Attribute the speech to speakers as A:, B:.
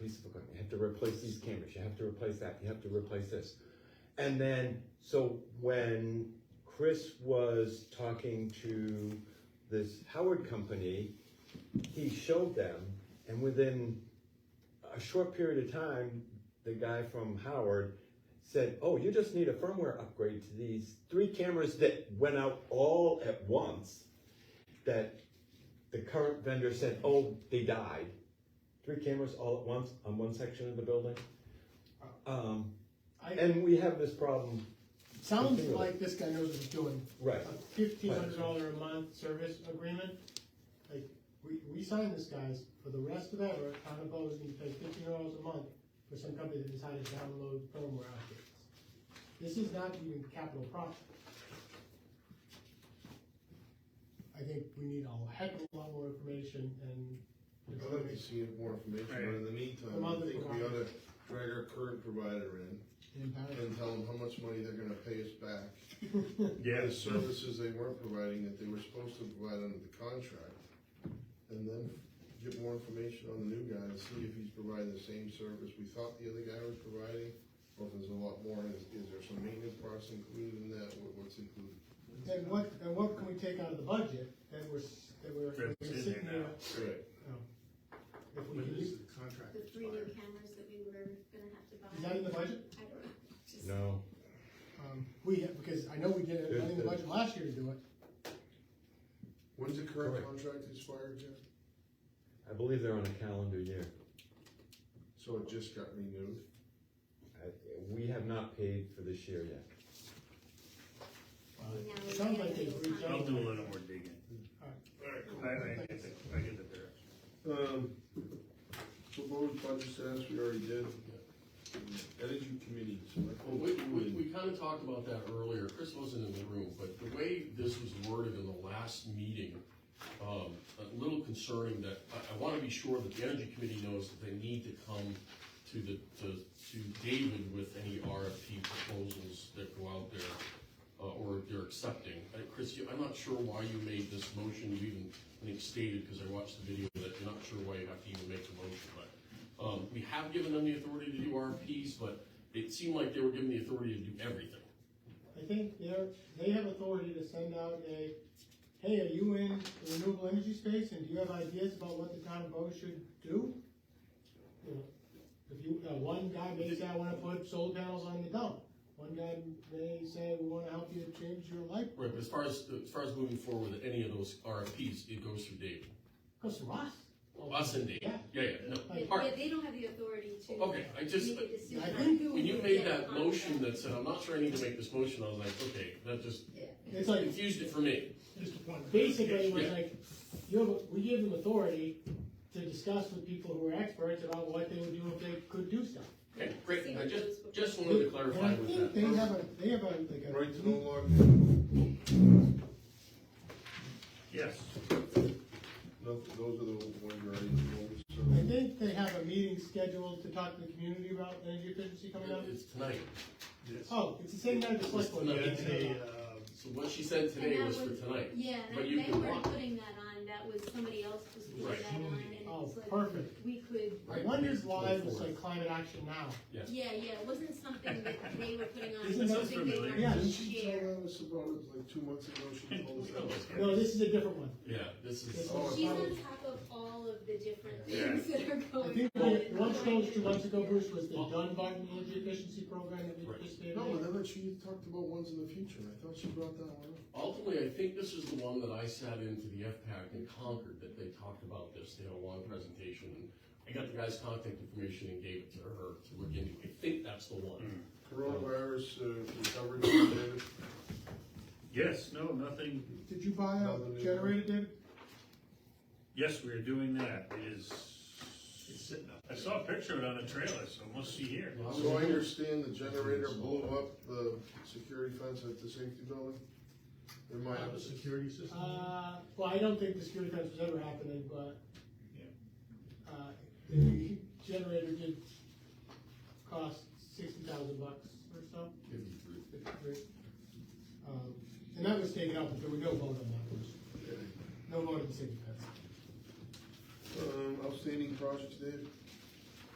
A: piece of equipment, you have to replace these cameras, you have to replace that, you have to replace this. And then, so when Chris was talking to this Howard company, he showed them, and within a short period of time, the guy from Howard said, "Oh, you just need a firmware upgrade to these three cameras that went out all at once." That the current vendor said, "Oh, they died." Three cameras all at once on one section of the building. Um,
B: I-
A: and we have this problem,
B: Sounds like this guy knows what he's doing.
A: right?
B: A fifteen hundred dollar a month service agreement, like, we, we signed this guys, for the rest of ever, town of Bow is gonna pay fifteen dollars a month for some company that decided to download firmware updates. This is not even capital profit. I think we need a heck of a lot more information and.
C: Well, Let me see if more information, but in the meantime, I
B: Another
C: think we ought
B: provider.
C: to drag our current provider in and tell them how much money they're gonna pay us back. for The services they weren't providing that they were supposed to provide under the contract. And then get more information on the new guy and see if he's providing the same service we thought the other guy was providing. Or if there's a lot more, is, is there some maintenance parts included in that, what, what's included?
B: And what, and what can we take out of the budget that we're, s- that we're we're
D: That's in uh, there
B: sitting there?
D: now.
C: Right.
B: If we
D: When
B: can
D: does
B: use,
D: the contract
E: The three new
D: expire?
E: cameras that we were gonna have to buy.
B: is that in the budget?
E: I don't know. Just-
A: No,
B: Um, we, because I know we did it, I think the budget last year to do it.
C: When's the current
A: Correct.
C: contract expired, Jeff?
A: I believe they're on a calendar year.
C: So it just got renewed?
A: I, we have not paid for this year yet.
E: Now we
B: Sounds
E: have
B: like
E: to
B: they
E: go
B: reached
E: find-
B: out.
D: I'll do a little more digging.
C: Alright,
D: I, I get the, I get the direction.
C: Um, proposed budget status, we already did. Energy committee,
F: Well, we, we, we kinda talked about that earlier, Chris wasn't in the room, but the way this was worded in the last meeting, um, a little concerning that, I, I wanna be sure that the energy committee knows that they need to come to the, to, to David with any RFP proposals that go out there, uh, or they're accepting. Uh, Chris, you- I'm not sure why you made this motion, you even, I think stated, cause I watched the video, that you're not sure why you have to even make the motion, but, um, we have given them the authority to do RFPs, but it seemed like they were given the authority to do everything.
B: I think they're, they have authority to send out a, hey, are you in the renewable energy space, and do you have ideas about what the town of Bowes should do? You know, If you, uh, one guy may say, I wanna put solar panels on the dump, one guy may say, we wanna help you change your life,
F: Right, but as far as, as far as moving forward with any of those RFPs, it goes through David.
B: goes to us.
F: Us and David. Yeah, yeah,
E: But-
F: no, part,
E: but They don't have the authority to.
F: Okay, I just-
E: Make a decision.
B: I
E: on
B: think
E: who
F: when you
E: would
F: made
E: get
F: that
E: on
F: motion
E: that.
F: that said, I'm not sure I need to make this motion, I was like, okay, that just
E: Yeah.
B: It's like,
F: confused it for me.
B: basically it was
F: Yeah.
B: like, you have, we give them authority to discuss with people who are experts about what they would do if they could do stuff.
F: Okay, great, I just, just wanted to
B: And I
F: clarify
B: think
F: with
B: they have
F: that.
B: a, they have a, like a.
C: Right to know law,
D: Yes.
C: no, those are the ones you already told, so.
B: I think they have a meeting scheduled to talk to the community about energy efficiency coming up.
F: It's tonight.
B: Oh, it's the same night as the select board.
F: Yeah,
B: meeting.
F: it's
D: uh,
F: a, So what she said today
E: And that
F: was for
E: was-
F: tonight.
E: Yeah,
F: But
E: that-
F: you
E: they
F: can
E: weren't
F: walk.
E: putting that on, that was, somebody else was putting
F: Right.
E: that on, and
F: uh,
E: it
B: Oh,
E: was like,
B: perfect.
E: we could,
B: I
F: Right.
B: wonder if live was
F: Twenty-fourth.
B: like climate action now.
F: Yes.
E: yeah, yeah, it wasn't something that they were putting on, it
B: Isn't
E: was
B: that
E: something they
D: familiar?
E: wanted
B: Yeah.
E: to
C: Didn't she
E: share.
C: tell us about it like two months ago, she told us that?
B: No, this is a different one.
F: Yeah, this is,
B: Oh,
E: She's
B: that
E: on
B: was-
E: top of all of the different
D: Yeah.
E: things that are
B: I
E: going
B: think
E: on.
B: the
E: in the
B: one chose two months ago,
E: climate.
B: Bruce, was the Dunbar energy efficiency program that we
F: Right.
B: participated
C: No,
B: in.
C: but I thought she talked about ones in the future, I thought she brought that one up.
F: ultimately, I think this is the one that I sat into the FPAC in Concord, that they talked about this, they had a long presentation. and I got the guy's contact information and gave it to her to look into. I think that's the one.
C: Mm. Coronavirus uh, recovery, David,
D: Yes, no, nothing,
B: Did you buy
C: Another
B: a
C: new-
B: Uh, generator, David?
D: yes, we're doing that, it is. I saw a picture of it on a trailer, so it must be here.
C: so I understand the generator blew up the security fence at the safety building? In my
G: Have a security system?
B: Uh, well, I don't think the security fence was ever happening, but,
G: Yeah.
B: uh, the generator did cost sixty thousand bucks or so,
F: Fifty-three.
B: fifty-three. Um, and that was taken out, but there was no vote on that, one. no vote on the safety fence.
C: Um, outstanding projects, David?